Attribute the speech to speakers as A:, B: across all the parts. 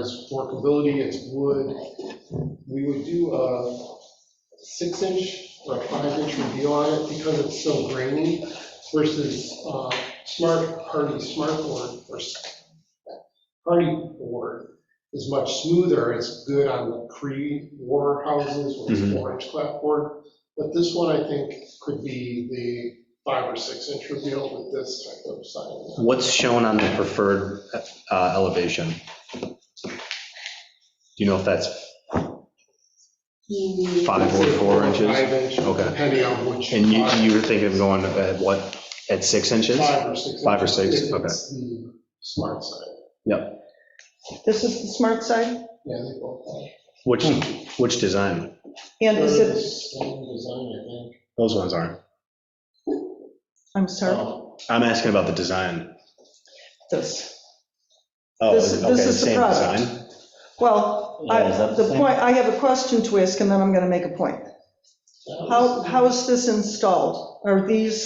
A: It's workability, it's wood. We would do a six-inch or a five-inch reveal on it because it's so grainy versus uh, smart, hardy smart board or s- hardy board is much smoother. It's good on the Cree war houses with
B: Mhm.
A: four-inch clapboard. But this one, I think, could be the five or six-inch reveal with this type of siding.
B: What's shown on the preferred uh, elevation? Do you know if that's, Five or four inches?
A: Five inch,
B: Okay.
A: depending on which.
B: and you,
A: product.
B: you were thinking of going at what, at six inches?
A: Five or six.
B: Five or six,
A: If
B: okay.
A: It's the smart side.
C: This is the smart side?
A: Yeah, they both are.
B: Which, which design?
C: And is
A: They're the
C: it,
A: Same design, I think.
B: Those ones aren't.
C: I'm
D: Oh.
C: sorry,
A: Um,
B: I'm asking about the design.
C: this.
B: Oh,
C: This- this
B: okay,
C: is the
B: same
C: product.
B: design.
C: Well, I-
D: Yeah, is that the
C: the
D: same?
C: point, I have a question to ask and then I'm going to make a point.
A: that
C: How,
A: was-
C: how is this installed? Are these,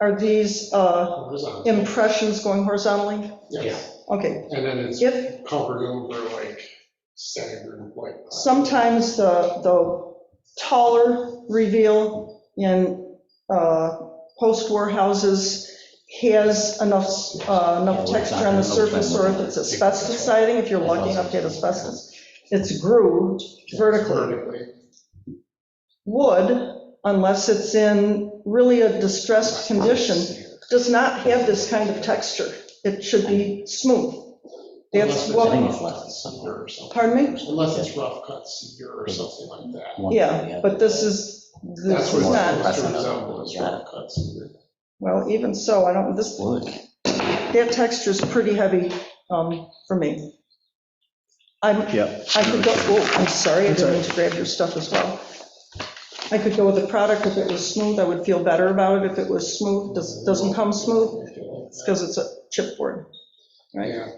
C: are these uh,
A: Horizontal,
C: impressions going horizontally?
A: yes.
C: Okay,
A: And then it's
C: if,
A: covered over like staggered like.
C: Sometimes the, the taller reveal in uh, post-war houses has enough, uh, enough texture on the surface, or if it's asbestos siding, if you're lucky enough to get asbestos, it's grooved vertically.
A: Vertically.
C: Wood, unless it's in really a distressed condition, does not have this kind of texture. It should be smooth. That's
A: Unless it's
D: I think
C: what,
D: it's less than
A: Cedar or something.
C: pardon me?
A: Unless it's rough cut cedar or something like that.
D: one or the
C: Yeah,
D: other.
C: but this is, this
A: That's what
C: is
A: it's
C: not.
A: supposed to resemble, is rough cut cedar.
C: Well, even so, I don't, this,
D: Wood.
C: that texture's pretty heavy um, for me. I'm,
B: Yep.
C: I could go, oh, I'm sorry, I didn't mean to grab your stuff as well. I could go with the product if it was smooth, I would feel better about it if it was smooth, Does- doesn't come smooth, it's because it's a chipboard.
A: Yeah,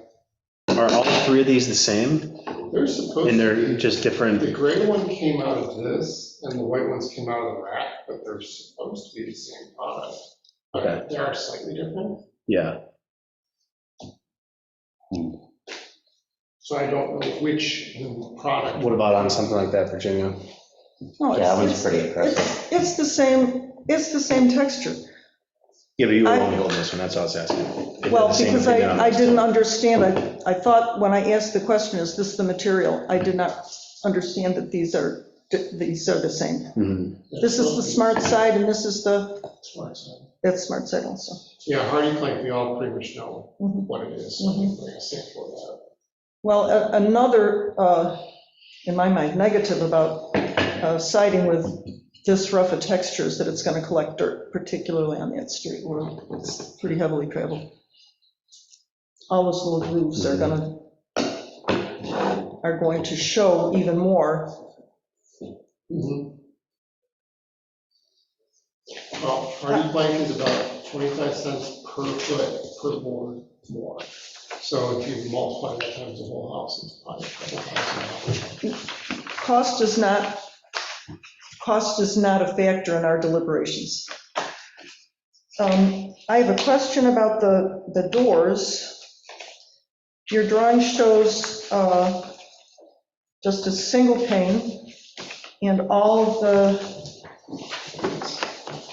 B: Are all three of these the same?
A: they're supposed.
B: And
A: to
B: they're
A: be-
B: just different?
A: The gray one came out of this, and the white ones came out of the rack, but they're supposed to be the same product.
B: Okay.
A: But they are slightly different,
B: Yeah.
A: so I don't know which product.
B: What about on something like that, Virginia?
C: No,
D: Yeah,
C: it's-
D: that one's pretty impressive.
C: It's it's the same, it's the same texture.
B: Yeah, but you were
C: I-
B: only holding this one, that's what I was asking. If they're
C: Well,
B: the same, if
C: because
B: they
C: I,
B: did on
C: I
B: this
C: didn't
B: one.
C: understand, I, I thought when I asked the question, is this the material? I did not understand that these are, these are the same.
B: Mhm.
C: This is the smart side and this is the,
A: Smart side.
C: that's smart side also.
A: Yeah, hardy plank, we all pretty much know
C: Mhm.
A: what it is,
C: Mhm.
A: like a sample of that.
C: Well, a- another, uh, in my mind, negative about uh, siding with this rough a texture is that it's going to collect dirt, particularly on that street where it's pretty heavily traveled. All those little grooves are going to, are going to show even more.
A: Mhm. Well, hardy plank is about 25 cents per foot per board more. So if you multiply that times the whole house, it's probably a couple thousand dollars.
C: Cost is not, cost is not a factor in our deliberations. Um, I have a question about the, the doors. Your drawing shows uh, just a single pane, and all of the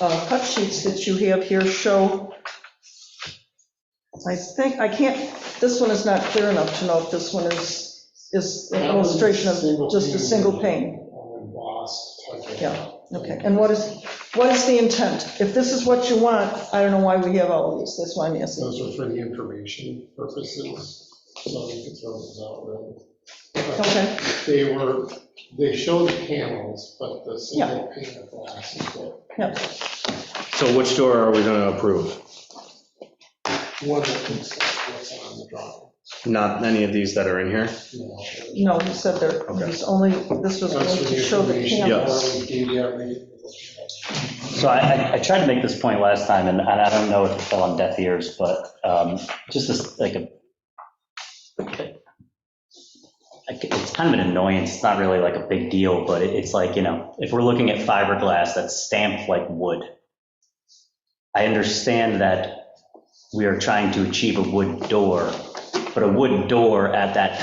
C: uh, cut sheets that you have here show, I think, I can't, this one is not clear enough to know if this one is, is an
A: That one's
C: illustration
A: single
C: of just a
A: pane.
C: single pane.
A: All embossed type of.
C: Yeah, Okay, and what is, what is the intent? If this is what you want, I don't know why we have all of these, that's why I'm asking.
A: Those are for the information purposes, so you can throw those out. really. But
C: Okay,
A: They were, they show the panels, but the
C: Yeah.
A: single pane of glass is what,
B: So which door are we going to approve?
A: one that looks like what's on the drawing.
B: Not any of these that are in here?
A: you know.
C: no, you said there,
B: Okay.
C: there's only, this was
A: Those
C: only
A: are
C: to
A: the
C: show the
A: information.
C: panels.
A: Or we gave you every-
D: So I- I, I tried to make this point last time, and and I don't know if it fell on deaf ears, but um, just this, like a, I c- it's kind of an annoyance, it's not really like a big deal, but it- it's like, you know, if we're looking at fiberglass that's stamped like wood, I understand that we are trying to achieve a wood door, but a wood door at that